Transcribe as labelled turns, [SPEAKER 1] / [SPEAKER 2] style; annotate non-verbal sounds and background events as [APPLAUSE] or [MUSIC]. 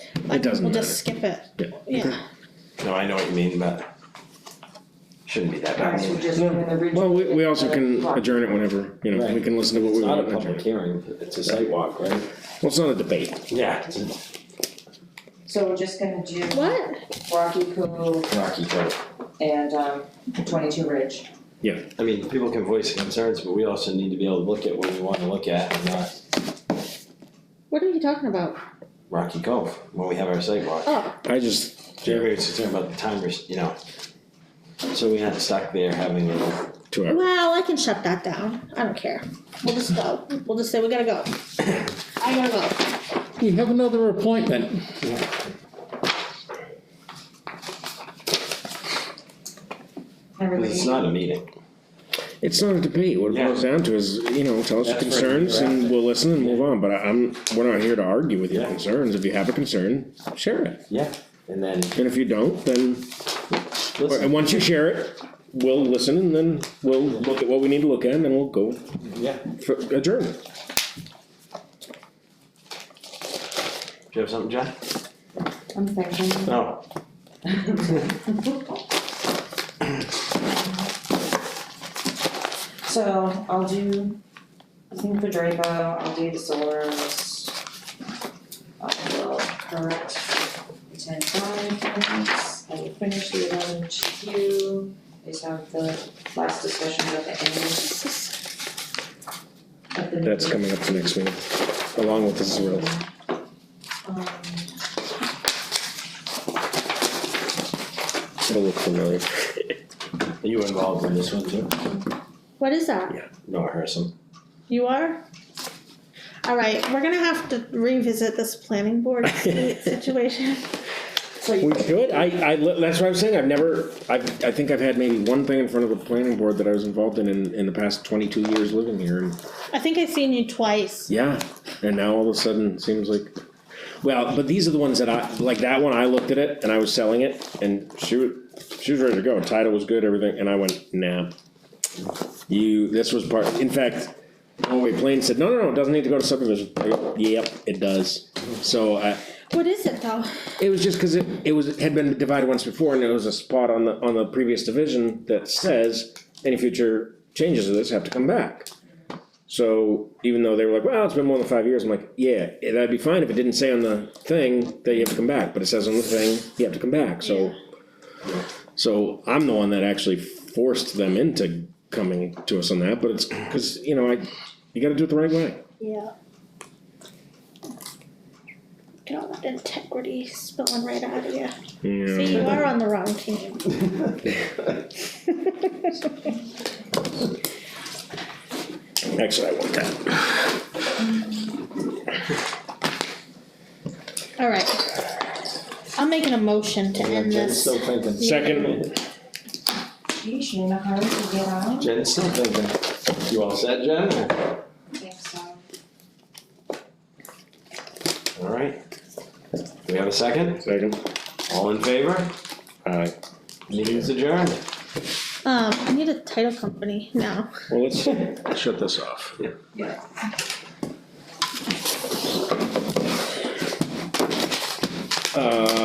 [SPEAKER 1] It doesn't
[SPEAKER 2] We'll
[SPEAKER 1] matter.
[SPEAKER 2] just skip it,
[SPEAKER 1] Yeah.
[SPEAKER 2] yeah,
[SPEAKER 3] No, I know what you mean, but shouldn't be that
[SPEAKER 4] Alright,
[SPEAKER 3] bad.
[SPEAKER 4] so just do an original.
[SPEAKER 1] Well, we, we also can adjourn it whenever, you know, we
[SPEAKER 5] Right.
[SPEAKER 1] can listen to what
[SPEAKER 5] It's
[SPEAKER 1] we
[SPEAKER 5] not
[SPEAKER 1] want.
[SPEAKER 5] a
[SPEAKER 1] and adjourn
[SPEAKER 5] public
[SPEAKER 1] it.
[SPEAKER 5] hearing, it's a site walk, right?
[SPEAKER 1] Well, it's not a debate.
[SPEAKER 5] Yeah. it's
[SPEAKER 4] So we're just gonna do
[SPEAKER 2] what?
[SPEAKER 4] Rocky Kumu
[SPEAKER 5] a Rocky Road.
[SPEAKER 4] and um twenty-two Ridge.
[SPEAKER 5] I mean, people can voice concerns, but we also need to be able to look at what we wanna look at and not
[SPEAKER 2] What are you talking about?
[SPEAKER 5] Rocky Cove when we have our site walk.
[SPEAKER 2] Oh,
[SPEAKER 1] I just,
[SPEAKER 5] Jeremy was concerned about the timers, you know. So we had stuck there having a,
[SPEAKER 1] two hours.
[SPEAKER 2] well, I can shut that down, I don't care, we'll just go, we'll just say we gotta go. I gotta go,
[SPEAKER 1] You have another appointment.
[SPEAKER 5] it's not a meeting.
[SPEAKER 1] It's not a debate. What it
[SPEAKER 5] Yeah.
[SPEAKER 1] boils down to is, you know, tell us your
[SPEAKER 5] That's right.
[SPEAKER 1] concerns and we'll listen and move on, but I- I'm, we're not here to argue with your
[SPEAKER 5] Yeah.
[SPEAKER 1] concerns. If you have a concern, share it.
[SPEAKER 5] Yeah. And then,
[SPEAKER 1] And if you don't, then, or- and
[SPEAKER 5] listen,
[SPEAKER 1] once you share it, we'll listen and then we'll look at what we need to look at and then we'll go
[SPEAKER 5] yeah,
[SPEAKER 1] for adjourn.
[SPEAKER 5] do you have something, John?
[SPEAKER 4] I'm thinking.
[SPEAKER 5] No.
[SPEAKER 4] So I'll do, I think for Drapo, I'll do the solars. I will correct ten five, I will finish the eleven Q, I just have the last discussion about the end. At the.
[SPEAKER 1] That's coming up the next meeting, along with this real.
[SPEAKER 4] Um,
[SPEAKER 1] It'll look familiar. [LAUGHS]
[SPEAKER 5] Are you involved in this one too?
[SPEAKER 2] what is that?
[SPEAKER 5] No, Harrison.
[SPEAKER 2] You are? Alright, we're gonna have to revisit this planning
[SPEAKER 1] [LAUGHS]
[SPEAKER 2] board seat situation.
[SPEAKER 4] so you
[SPEAKER 1] We should, I, I, that's what I'm saying, I've never, I, I think I've had maybe one thing in front of the planning board that I was involved in in, in the past twenty-two years living here, and,
[SPEAKER 2] I think I've seen you twice.
[SPEAKER 1] yeah. And now all of a sudden, it seems like, well, but these are the ones that I, like that one, I looked at it and I was selling it, and she was, she was ready to go, title was good, everything, and I went, nah. You, this was part, in fact, Norway Plain said, no, no, no, it doesn't need to go to subdivision, I go, yep, it does. So I,
[SPEAKER 2] What is it though?
[SPEAKER 1] it was just because it, it was, had been divided once before, and there was a spot on the, on the previous division that says, any future changes to this have to come back. So, even though they were like, well, it's been more than five years, I'm like, yeah, that'd be fine if it didn't say on the thing that you have to come back, but it says on the thing, you have to come back, so. So, I'm the one that actually forced them into coming to us on that, but it's, cause, you know, I, you gotta do it the right way.
[SPEAKER 2] Yeah. Get all that integrity spilling right out of you. See, you are on the wrong team.
[SPEAKER 1] Actually, I want that.
[SPEAKER 2] Alright. I'm making a motion to end
[SPEAKER 5] Jen's
[SPEAKER 2] this.
[SPEAKER 5] still thinking.
[SPEAKER 1] Second.
[SPEAKER 4] Geez, you're in a hurry to get out?
[SPEAKER 5] Jen's still thinking. You all set, Jen? or-
[SPEAKER 4] I think so.
[SPEAKER 5] All right. We have a second?
[SPEAKER 1] Second.
[SPEAKER 5] All in favor?
[SPEAKER 1] Aye.
[SPEAKER 5] Meeting's adjourned.
[SPEAKER 2] Um, I need a title company now.
[SPEAKER 1] Well, let's shut this off. Uh,